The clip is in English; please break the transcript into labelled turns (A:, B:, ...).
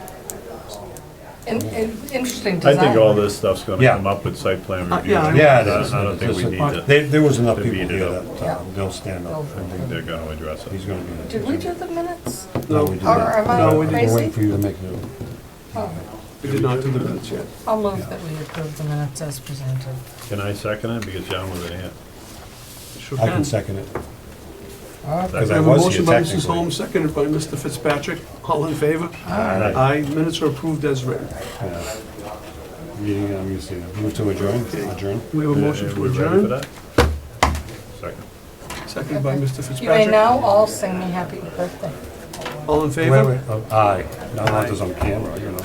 A: And, and interesting
B: I
A: design.
B: think all this stuff's gonna
C: Yeah.
B: come up with site plan
D: Uh,
B: review.
D: yeah, I-
C: Yeah, it
B: I-
C: is.
B: I don't think we need to,
C: There, there was enough
B: to
C: people
B: beat it
C: here
B: up.
C: that uh, they'll stand up.
B: I think they're gonna address
C: He's
B: it.
C: gonna be.
A: Did we do the minutes?
C: No, we did
A: Or
C: not.
A: am I
C: No, we didn't
A: crazy?
C: wait for you to make the.
A: Oh,
D: We did not do the minutes yet.
A: I'll move that we approve the minutes as presented.
B: Can I second it? Because John wasn't here.
D: Sure
C: I can second it.
B: Second.
C: Because
D: I
C: I
D: Uh, have a
C: was here
D: motion by Mrs.
C: technically.
D: Holmes, seconded by Mr. Fitzpatrick. All in favor?
C: Aye.
D: Aye, minutes are approved as written.
C: Yeah. Meeting, I'm gonna say, move to adjourn, adjourn.
D: We have a motion
B: Uh,
D: to
B: we ready for
D: adjourn,
B: that? Second.
D: seconded by
A: You
D: Mr.
A: may
D: Fitzpatrick.
A: now all sing me happy birthday.
D: All in
C: Wait,
D: favor?
C: wait, oh, aye. Not that there's on camera, you know.